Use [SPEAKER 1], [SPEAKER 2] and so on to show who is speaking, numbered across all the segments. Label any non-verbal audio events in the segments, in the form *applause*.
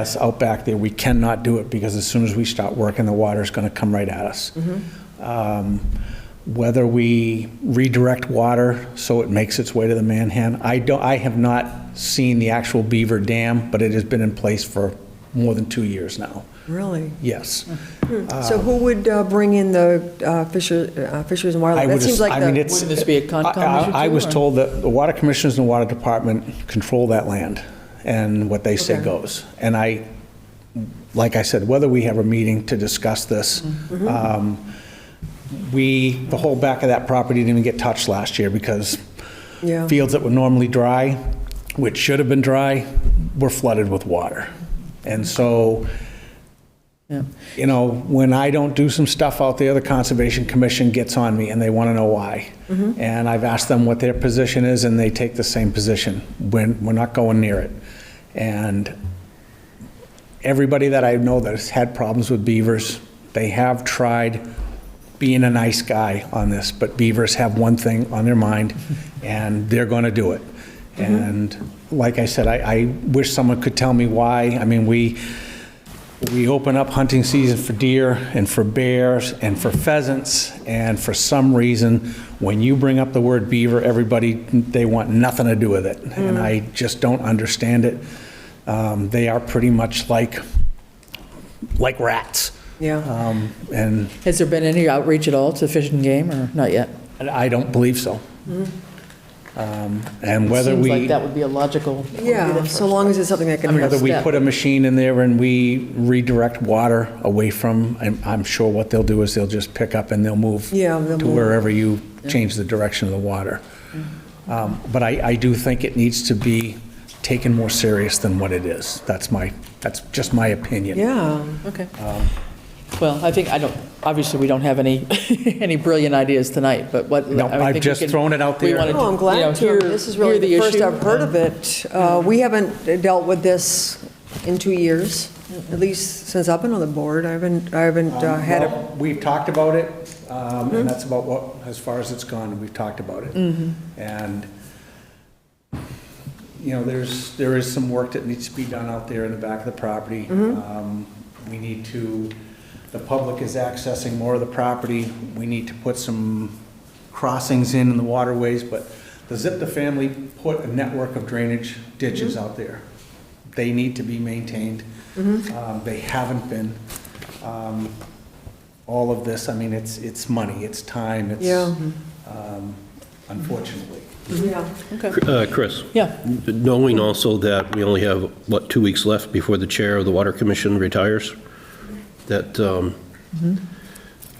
[SPEAKER 1] us out back there, we cannot do it because as soon as we start working, the water's going to come right at us. Um, Whether we redirect water so it makes its way to the Manhan, I don't, I have not seen the actual Beaver Dam, but it has been in place for more than two years now.
[SPEAKER 2] Really?
[SPEAKER 1] Yes.
[SPEAKER 2] So who would uh, bring in the uh, Fisher- uh, Fisheries and
[SPEAKER 1] I
[SPEAKER 2] Wildlife?
[SPEAKER 1] would
[SPEAKER 2] That seems
[SPEAKER 1] as-
[SPEAKER 2] like
[SPEAKER 1] I mean,
[SPEAKER 2] the,
[SPEAKER 1] it's-
[SPEAKER 3] Wouldn't this be a Concom
[SPEAKER 1] I- I-
[SPEAKER 3] issue
[SPEAKER 1] I
[SPEAKER 3] too,
[SPEAKER 1] was
[SPEAKER 3] or-
[SPEAKER 1] told that the water commissioners and the water department control that land, and what they say
[SPEAKER 2] Okay.
[SPEAKER 1] goes. And I, like I said, whether we have a meeting to discuss this,
[SPEAKER 2] Mm-hmm.
[SPEAKER 1] um, we, the whole back of that property didn't even get touched last year because
[SPEAKER 2] Yeah.
[SPEAKER 1] fields that were normally dry, which should have been dry, were flooded with water. And so,
[SPEAKER 3] Yeah.
[SPEAKER 1] you know, when I don't do some stuff out there, the Conservation Commission gets on me and they want to know why. And I've asked them what their position is and they take the same position. We're, we're not going near it. And everybody that I know that has had problems with beavers, they have tried being a nice guy on this, but beavers have one thing on their mind, and they're going to do it. And like I said, I, I wish someone could tell me why. I mean, we, we open up hunting season for deer and for bears and for pheasants, and for some reason, when you bring up the word beaver, everybody, they want nothing to do with it. And I just don't understand it. Um, They are pretty much like, like rats.
[SPEAKER 2] yeah.
[SPEAKER 1] Um, And
[SPEAKER 3] Has there been any outreach at all to Fish and Game, or not yet?
[SPEAKER 1] And I don't believe so. Um, And whether
[SPEAKER 3] Seems like
[SPEAKER 1] we,
[SPEAKER 3] that would be a logical.
[SPEAKER 2] Yeah, so long as it's something that can,
[SPEAKER 1] whether
[SPEAKER 2] help.
[SPEAKER 1] we
[SPEAKER 3] step.
[SPEAKER 1] put a machine in there and we redirect water away from, I'm- I'm sure what they'll do is they'll just pick up and they'll move
[SPEAKER 2] Yeah, they'll
[SPEAKER 1] to
[SPEAKER 2] move.
[SPEAKER 1] wherever you change the direction of the water.
[SPEAKER 2] Mm-hmm.
[SPEAKER 1] Um, But I, I do think it needs to be taken more serious than what it is. That's my, that's just my opinion.
[SPEAKER 2] yeah.
[SPEAKER 3] Okay. Well, I think, I don't, obviously, we don't have any, *laughs* any brilliant ideas tonight, but what.
[SPEAKER 1] No,
[SPEAKER 3] I think
[SPEAKER 1] I've
[SPEAKER 3] we
[SPEAKER 1] just
[SPEAKER 3] can-
[SPEAKER 1] thrown it out
[SPEAKER 3] we
[SPEAKER 1] there.
[SPEAKER 3] wanna,
[SPEAKER 2] No, Oh, I'm
[SPEAKER 3] you know,
[SPEAKER 2] glad to.
[SPEAKER 3] hear-
[SPEAKER 2] This is really
[SPEAKER 3] hear
[SPEAKER 2] the first
[SPEAKER 3] issue
[SPEAKER 2] I've heard of
[SPEAKER 3] and-
[SPEAKER 2] it. Uh, We haven't dealt with this in two years, at least since I've been on the board. I haven't, I haven't uh, had a,
[SPEAKER 1] Um,
[SPEAKER 2] Mm-hmm.
[SPEAKER 1] Well, We've talked about it, um, and that's about what, as far as it's gone, we've talked about it. And, you know, there's, there is some work that needs to be done out there in the back of the property. Um, We need to, the public is accessing more of the property. We need to put some crossings in in the waterways, but the Zipta family put a network of drainage ditches out there. They need to be maintained. Um, They haven't been Um, all of this, I mean, it's, it's money, it's time,
[SPEAKER 2] Yeah.
[SPEAKER 1] it's, um, unfortunately.
[SPEAKER 2] yeah.
[SPEAKER 4] Uh, Chris,
[SPEAKER 3] Yeah,
[SPEAKER 4] knowing also that we only have, what, two weeks left before the chair of the Water Commission retires, that um,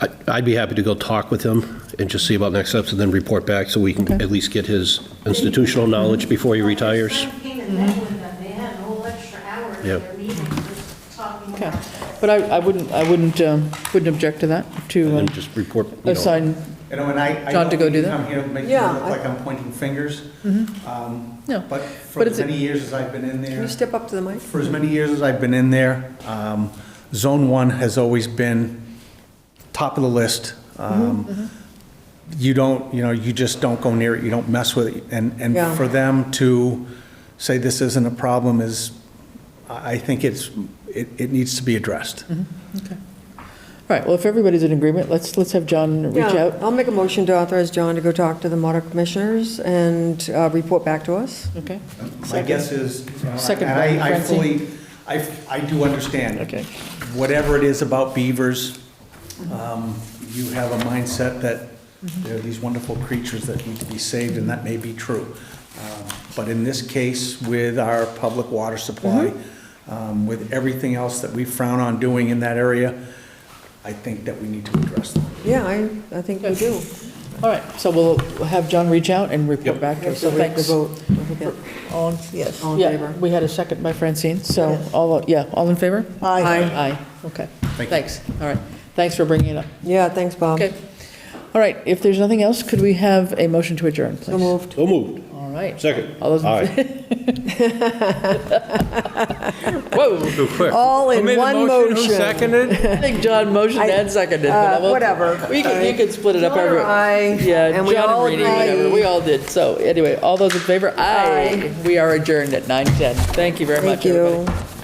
[SPEAKER 4] I- I'd be happy to go talk with him and just see about next steps and then report back so we can at least get his institutional knowledge before he retires.
[SPEAKER 5] Last time came and met with them, they had a whole extra hour in
[SPEAKER 4] Yep.
[SPEAKER 5] their meeting just talking
[SPEAKER 3] okay.
[SPEAKER 5] about that.
[SPEAKER 3] But I, I wouldn't, I wouldn't, um, wouldn't object to that, to
[SPEAKER 4] And
[SPEAKER 3] um,
[SPEAKER 4] then just report, you know,
[SPEAKER 3] assign,
[SPEAKER 1] You know, and I. I
[SPEAKER 3] John, to
[SPEAKER 1] don't
[SPEAKER 3] go
[SPEAKER 1] mean
[SPEAKER 3] do that? Mm-hmm.
[SPEAKER 1] Come here, and make it
[SPEAKER 2] Yeah,
[SPEAKER 1] look
[SPEAKER 2] I-
[SPEAKER 1] like I'm pointing fingers. Um,
[SPEAKER 3] No,
[SPEAKER 1] But for
[SPEAKER 3] but
[SPEAKER 1] as
[SPEAKER 3] it's a-
[SPEAKER 1] many years as I've been in
[SPEAKER 2] Can you
[SPEAKER 1] there,
[SPEAKER 2] step up to the mic?
[SPEAKER 1] for as many years as I've been in there, um, Zone One has always been top of the list.
[SPEAKER 3] Mm-hmm,
[SPEAKER 1] Um, You don't, you know, you just don't go near it, you don't mess with it. And, and
[SPEAKER 2] Yeah.
[SPEAKER 1] for them to say this isn't a problem is, I I think it's, it, it needs to be addressed.
[SPEAKER 3] all right, well, if everybody's in agreement, let's, let's have John reach
[SPEAKER 2] Yeah,
[SPEAKER 3] out.
[SPEAKER 2] I'll make a motion to authorize John to go talk to the Water Commissioners and uh, report back to us.
[SPEAKER 3] Okay,
[SPEAKER 1] My guess is, you know,
[SPEAKER 3] Second
[SPEAKER 1] and I- I
[SPEAKER 3] round, Francine.
[SPEAKER 1] fully, I, I do understand.
[SPEAKER 3] Okay.
[SPEAKER 1] Whatever it is about beavers, um, you have a mindset that
[SPEAKER 3] Mm-hmm.
[SPEAKER 1] they're these wonderful creatures that need to be saved, and that may be true. Um, But in this case, with our public water supply,
[SPEAKER 3] Mm-hmm.
[SPEAKER 1] um, with everything else that we frown on doing in that area, I think that we need to address them.
[SPEAKER 2] Yeah, I, I think we do.
[SPEAKER 3] all right, so we'll have John reach out and report
[SPEAKER 1] Yep.
[SPEAKER 3] back to us, so
[SPEAKER 2] We have to
[SPEAKER 3] thanks.
[SPEAKER 2] vote. Don't forget.
[SPEAKER 3] All, yes.
[SPEAKER 2] All in favor?
[SPEAKER 3] We had a second by Francine, so, all, yeah, all in favor?
[SPEAKER 2] Aye. Aye.
[SPEAKER 3] Aye, okay.
[SPEAKER 1] you.
[SPEAKER 3] Thanks, all right. Thanks for bringing it up.
[SPEAKER 2] Yeah, thanks, Bob.
[SPEAKER 3] Okay. All right, if there's nothing else, could we have a motion to adjourn, please?
[SPEAKER 2] So moved.
[SPEAKER 4] so moved.
[SPEAKER 3] All right.
[SPEAKER 4] Oh, Second.
[SPEAKER 3] All those in-
[SPEAKER 4] Aye.
[SPEAKER 3] *laughs* Whoa,
[SPEAKER 6] Real quick.
[SPEAKER 2] All in
[SPEAKER 6] Who made the
[SPEAKER 2] one motion.
[SPEAKER 6] Who seconded?
[SPEAKER 3] I think John motioned
[SPEAKER 2] I-
[SPEAKER 3] and seconded. but
[SPEAKER 2] uh,
[SPEAKER 3] I'm okay.
[SPEAKER 2] whatever.
[SPEAKER 3] We can, you can split it up.
[SPEAKER 2] John or
[SPEAKER 3] every-
[SPEAKER 2] I,
[SPEAKER 3] Yeah,
[SPEAKER 2] and we all
[SPEAKER 3] John and Rainey, whatever,
[SPEAKER 2] agree.
[SPEAKER 3] we all did. So anyway, all those in favor?
[SPEAKER 2] Aye.
[SPEAKER 3] We are adjourned at 9:10. Thank you very much,
[SPEAKER 2] Thank
[SPEAKER 3] everybody.
[SPEAKER 2] you.